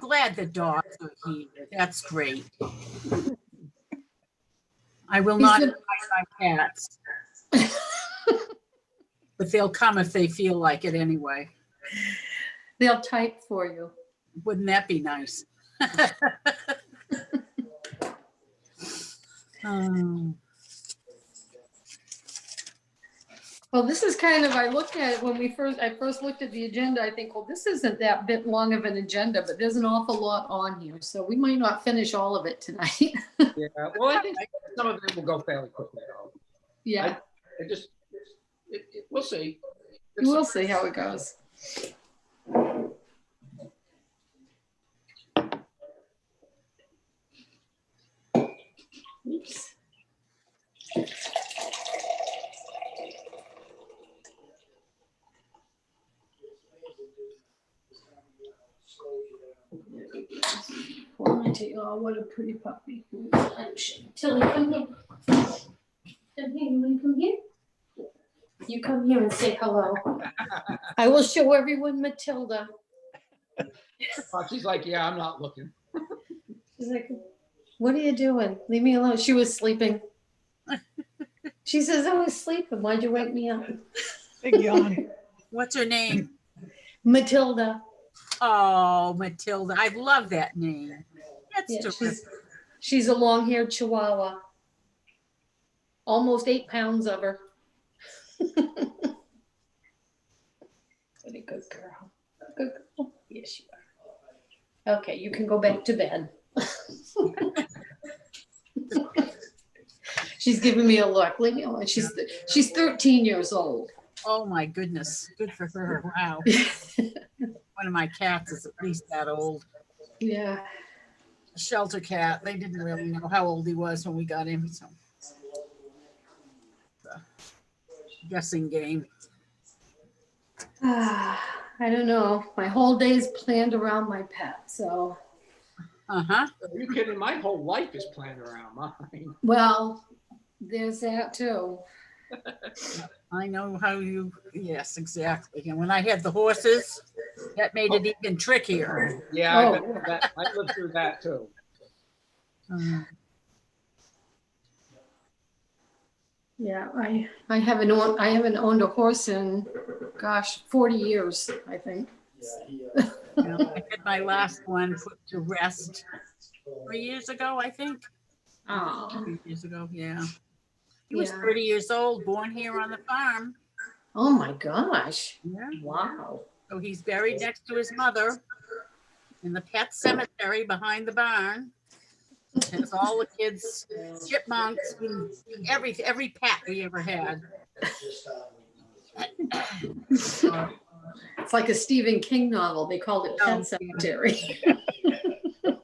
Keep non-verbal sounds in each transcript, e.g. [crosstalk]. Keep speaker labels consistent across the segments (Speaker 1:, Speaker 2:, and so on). Speaker 1: glad the dogs are here. That's great. I will not
Speaker 2: Is it-
Speaker 1: invite my cats. But they'll come if they feel like it anyway.
Speaker 2: They'll type for you.
Speaker 1: Wouldn't that be nice? [laughs] Um,
Speaker 2: Well, this is kind of, I looked at it when we first, I first looked at the agenda, I think, well, this isn't that bit long of an agenda, but there's an awful lot on here, so we might not finish all of it tonight. [laughs]
Speaker 3: Yeah, well, I think some of it will go fairly quickly though.
Speaker 2: Yeah,
Speaker 3: It just, it, it, we'll see.
Speaker 2: we'll see
Speaker 3: [laughs]
Speaker 2: how it goes. Oops. Quality, oh, what a pretty puppy.
Speaker 4: Tilly, come here. Come here, you wanna come here? You come here and say hello.
Speaker 2: I will show everyone Matilda.
Speaker 3: Uh, She's like, yeah, I'm not looking.
Speaker 2: She's like, what are you doing? Leave me alone. She was sleeping. She says, I was sleeping. Why'd you wake me up?
Speaker 5: Big yawn.
Speaker 1: What's her name?
Speaker 2: Matilda.
Speaker 1: Oh, Matilda. I love that name.
Speaker 2: Yeah,
Speaker 1: That's terrific.
Speaker 2: she's, she's a long-haired chihuahua. Almost eight pounds of [laughs] her. What a good girl. Good girl. Yes, you are. Okay, you can go back to bed. [laughs] She's giving me a look. Leave me alone. She's, she's 13 years old.
Speaker 1: Oh, my goodness. Good for her.
Speaker 2: [laughs]
Speaker 1: Wow. One of my cats is at least that old.
Speaker 2: Yeah.
Speaker 1: a shelter cat. They didn't really know how old he was when we got him, so. Guessing game.
Speaker 2: Ah, [sighs] I don't know. My whole day is planned around my pet, so.
Speaker 1: Uh-huh.
Speaker 3: Are you kidding? My whole life is planned around
Speaker 2: [laughs]
Speaker 3: mine.
Speaker 2: Well, there's that too.
Speaker 1: I know how you, yes, exactly. And when I had the horses, that made it even trickier.
Speaker 3: Yeah, I
Speaker 2: Oh.
Speaker 3: lived through that, I lived through that too.
Speaker 1: Uh,
Speaker 2: Yeah, I, I haven't owned, I haven't owned a horse in, gosh, forty years, I think.
Speaker 1: you know, I had my last one put to rest three years ago, I think.
Speaker 2: Oh,
Speaker 1: Three years ago, yeah. He was
Speaker 2: Yeah.
Speaker 1: 30 years old, born here on the farm.
Speaker 2: oh my gosh,
Speaker 1: Yeah.
Speaker 2: wow.
Speaker 1: So he's buried next to his mother in the pet cemetery behind the barn. And it's all the kids, chipmunks, and every, every pet we ever had.
Speaker 2: It's like a Stephen King novel, they called it Pet Cemetery. [laughs]
Speaker 1: I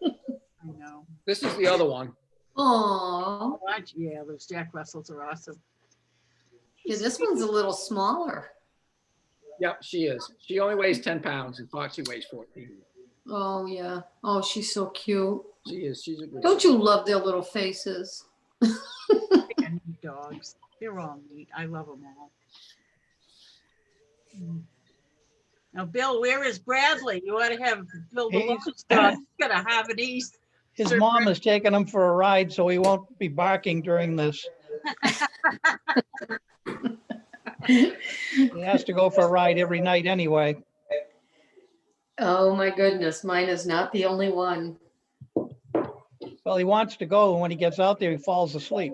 Speaker 1: know.
Speaker 3: This is the other one.
Speaker 2: Aw,
Speaker 1: Watch- Yeah, those Jack Russells are awesome.
Speaker 2: yeah, this one's a little smaller.
Speaker 3: Yep, she is. She only weighs ten pounds and Foxy weighs fourteen.
Speaker 2: Oh, yeah, oh, she's so cute.
Speaker 3: She is, she's a good.
Speaker 2: Don't you love their little faces?
Speaker 1: And dogs, they're all neat. I love them all. Now, Bill, where is Bradley? You ought to have Bill Baloo's dog. He's got a Harvard East.
Speaker 5: His mom is taking him for a ride, so he won't be barking during this. He has to go for a ride every night anyway.
Speaker 2: [laughs] Oh, my goodness, mine is not the only one.
Speaker 5: Well, he wants to go, and when he gets out there, he falls asleep.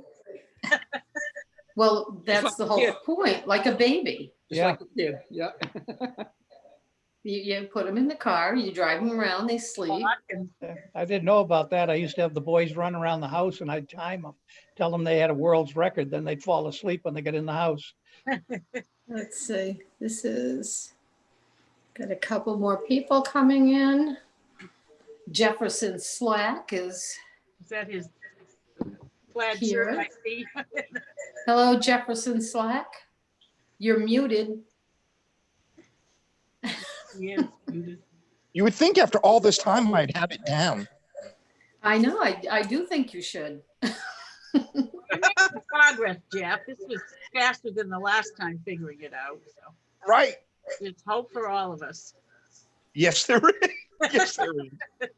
Speaker 2: Well, that's
Speaker 3: like
Speaker 2: the
Speaker 3: a
Speaker 2: whole
Speaker 3: kid.
Speaker 2: point, like a baby.
Speaker 3: Just like a kid, yeah.
Speaker 2: You, you put them in the car, you drive them around, they sleep.
Speaker 5: I didn't know about that. I used to have the boys run around the house and I'd time them, tell them they had a world's record, then they'd fall asleep when they get in the house.
Speaker 2: Let's see, this is, got a couple more people coming in. Jefferson Slack is,
Speaker 1: Is that his plaid shirt
Speaker 2: Here.
Speaker 1: I see? [laughs]
Speaker 2: hello Jefferson Slack. You're muted.
Speaker 1: Yes, beautiful.
Speaker 6: You would think after all this time I'd have it down.
Speaker 2: I know, I, I do think you should.
Speaker 1: progress, Jeff. This was faster than the last time figuring it out. So
Speaker 6: Right.
Speaker 1: there's hope for all of us.
Speaker 6: [laughs] Yes, there is. Yes, there is.